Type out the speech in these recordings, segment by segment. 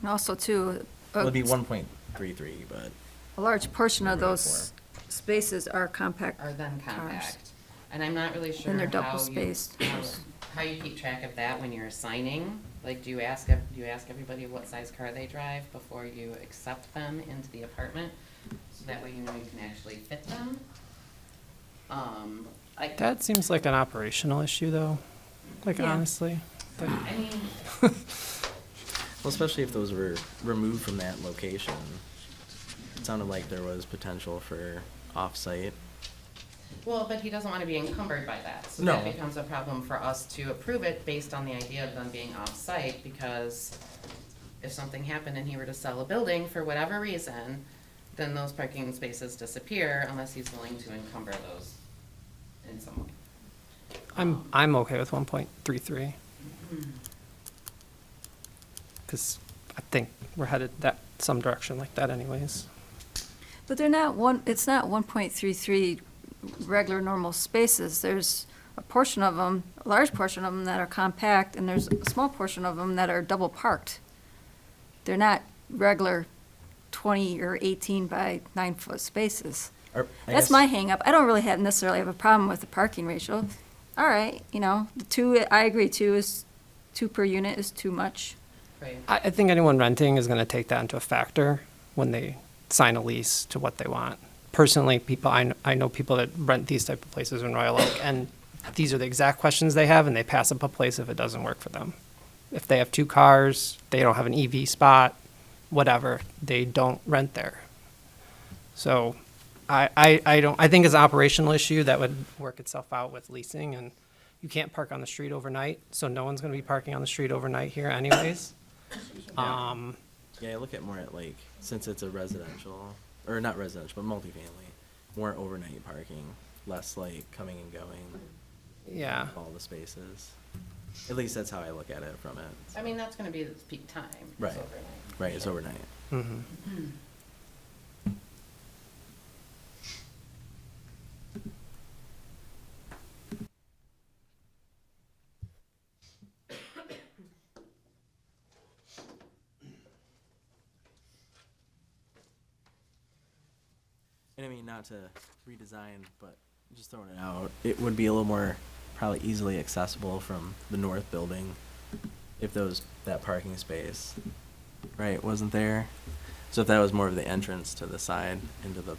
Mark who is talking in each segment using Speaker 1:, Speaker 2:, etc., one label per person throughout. Speaker 1: And also too,
Speaker 2: It
Speaker 1: a
Speaker 2: would be one point three three, but
Speaker 1: a large portion of
Speaker 2: Three or
Speaker 1: those spaces are compact
Speaker 3: are then
Speaker 1: cars.
Speaker 3: compact. And I'm not really sure
Speaker 1: they're
Speaker 3: how you,
Speaker 1: double-spaced.
Speaker 3: how- how you keep track of that when you're assigning. Like, do you ask, ev- do you ask everybody what size car they drive before you accept them into the apartment? So that way you know you can actually fit them. Um, I,
Speaker 4: That seems like an operational issue, though. Like
Speaker 1: Yeah.
Speaker 4: honestly, Like,
Speaker 3: I mean,
Speaker 2: well, especially if those were removed from that location, it sounded like there was potential for off-site.
Speaker 3: well, but he doesn't want to be encumbered by that. So
Speaker 2: No.
Speaker 3: that becomes a problem for us to approve it based on the idea of them being off-site because if something happened and he were to sell a building for whatever reason, then those parking spaces disappear unless he's willing to encumber those in some way.
Speaker 4: I'm I'm okay with 1.33 because I think we're headed that some direction like that, anyways.
Speaker 1: But they're not one, it's not one point three three regular normal spaces. There's a portion of them, a large portion of them that are compact, and there's a small portion of them that are double parked. They're not regular twenty or eighteen by nine foot spaces.
Speaker 2: Or, I
Speaker 1: That's
Speaker 2: guess-
Speaker 1: my hang up. I don't really have necessarily have a problem with the parking ratio. All right, you know, the two, I agree, two is, two per unit is too much.
Speaker 3: Right.
Speaker 4: I, I think anyone renting is going to take that into a factor when they sign a lease to what they want. Personally, people I, kn- I know people that rent these type of places in Royal Oak, and these are the exact questions they have, and they pass up a place if it doesn't work for them. If they have two cars, they don't have an EV spot, whatever, they don't rent there. So, I, I, I don't. I think it's an operational issue that would work itself out with leasing, and you can't park on the street overnight, so no one's going to be parking on the street overnight here, anyways. Um,
Speaker 2: Yeah, I look at more at like, since it's a residential, or not residential, but multifamily, more overnight parking, less like coming and going,
Speaker 4: yeah,
Speaker 2: all the spaces. At least that's how I look at it from it.
Speaker 3: I mean, that's gonna be the peak time. It's
Speaker 2: Right.
Speaker 3: overnight.
Speaker 2: Right, it's overnight. Mm-hmm.
Speaker 4: mhm.
Speaker 2: And I mean, not to redesign, but just throwing it out, it would be a little more probably easily accessible from the north building if those, that parking space, right, wasn't there. So if that was more of the entrance to the side into the,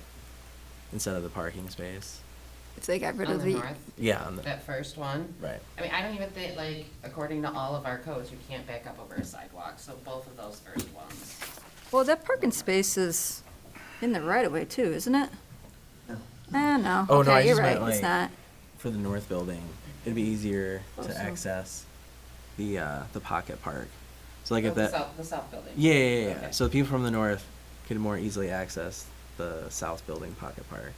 Speaker 2: instead of the parking space.
Speaker 1: If they got rid
Speaker 3: On
Speaker 1: of
Speaker 3: the
Speaker 1: the,
Speaker 3: north,
Speaker 2: Yeah, on the,
Speaker 3: that first one.
Speaker 2: right.
Speaker 3: I mean, I don't even think, like, according to all of our codes, you can't back up over a sidewalk, so both of those first ones.
Speaker 1: well, that parking space is in the right of way too, isn't it? Eh, no,
Speaker 2: Oh, no, I
Speaker 1: okay, you're
Speaker 2: just
Speaker 1: right,
Speaker 2: meant,
Speaker 1: it's
Speaker 2: like-
Speaker 1: not.
Speaker 2: For the north building, it'd be easier
Speaker 1: Also.
Speaker 2: to access the, uh, the pocket park. So like
Speaker 3: Oh,
Speaker 2: if
Speaker 3: the
Speaker 2: that.
Speaker 3: south, the south building.
Speaker 2: Yeah, yeah, yeah, yeah.
Speaker 3: Okay.
Speaker 2: So the people from the north could more easily access the south building pocket park,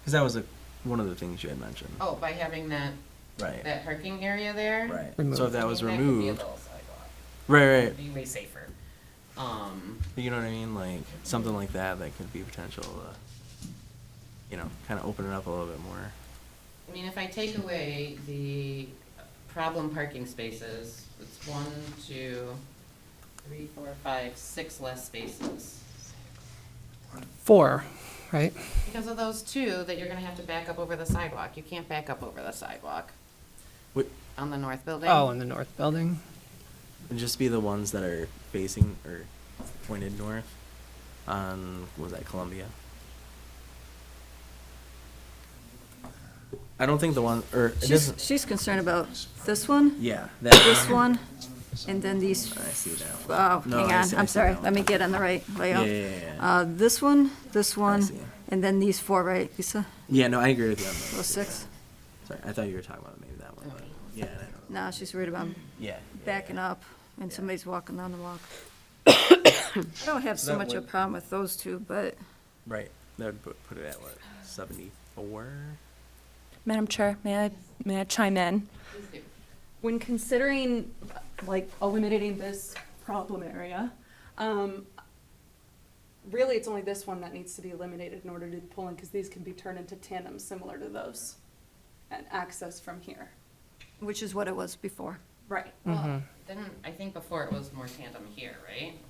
Speaker 2: because that was a, one of the things you had mentioned.
Speaker 3: Oh, by having that,
Speaker 2: Right.
Speaker 3: that parking area there?
Speaker 2: right.
Speaker 4: Removed.
Speaker 2: So if
Speaker 3: I
Speaker 2: that was
Speaker 3: mean, could be a
Speaker 2: removed,
Speaker 3: little sidewalk.
Speaker 2: right, right.
Speaker 3: It'd Be way safer. Um,
Speaker 2: But you know what I mean? Like something like that that could be potential. Uh, you know, kind of open it up a little bit more.
Speaker 3: I mean, if I take away the problem parking spaces, it's one, two, three, four, five, six less spaces.
Speaker 4: four, right?
Speaker 3: Because of those two that you're gonna have to back up over the sidewalk. You can't back up over the sidewalk
Speaker 2: Would
Speaker 3: on the north building.
Speaker 4: Oh, in the north building.
Speaker 2: would just be the ones that are facing or pointed north on what was that Columbia? I don't think the one or it
Speaker 1: She's,
Speaker 2: doesn't.
Speaker 1: she's concerned about this one,
Speaker 2: Yeah, that
Speaker 1: this one, and then these,
Speaker 2: I see that one.
Speaker 1: oh, hang
Speaker 2: No, I
Speaker 1: on,
Speaker 2: see- I
Speaker 1: I'm
Speaker 2: see
Speaker 1: sorry,
Speaker 2: that
Speaker 1: let me
Speaker 2: one.
Speaker 1: get on the right
Speaker 2: Yeah,
Speaker 1: layout.
Speaker 2: yeah, yeah, yeah.
Speaker 1: Uh, this one, this one,
Speaker 2: see.
Speaker 1: and then these four, right, Lisa?
Speaker 2: Yeah, no, I agree with you on that.
Speaker 1: Those oh, six?
Speaker 2: Sorry, I thought you were talking about maybe that one. But yeah, I don't know.
Speaker 1: No, she's worried about 'em
Speaker 2: yeah,
Speaker 1: backing up and
Speaker 2: Yeah.
Speaker 1: somebody's walking down the walk. I don't have
Speaker 2: So
Speaker 1: so
Speaker 2: that
Speaker 1: much of a
Speaker 2: would-
Speaker 1: problem with those two, but
Speaker 2: Right, that would put, put it at what seventy-four.
Speaker 5: Madam Chair, may I, may I chime in?
Speaker 3: Please do.
Speaker 5: When considering, like, eliminating this problem area, um, really, it's only this one that needs to be eliminated in order to do the pulling, because these can be turned into tandems similar to those, and access from here.
Speaker 1: which is what it was before.
Speaker 5: Right.
Speaker 3: Well, then, I think before it was more tandem here, right?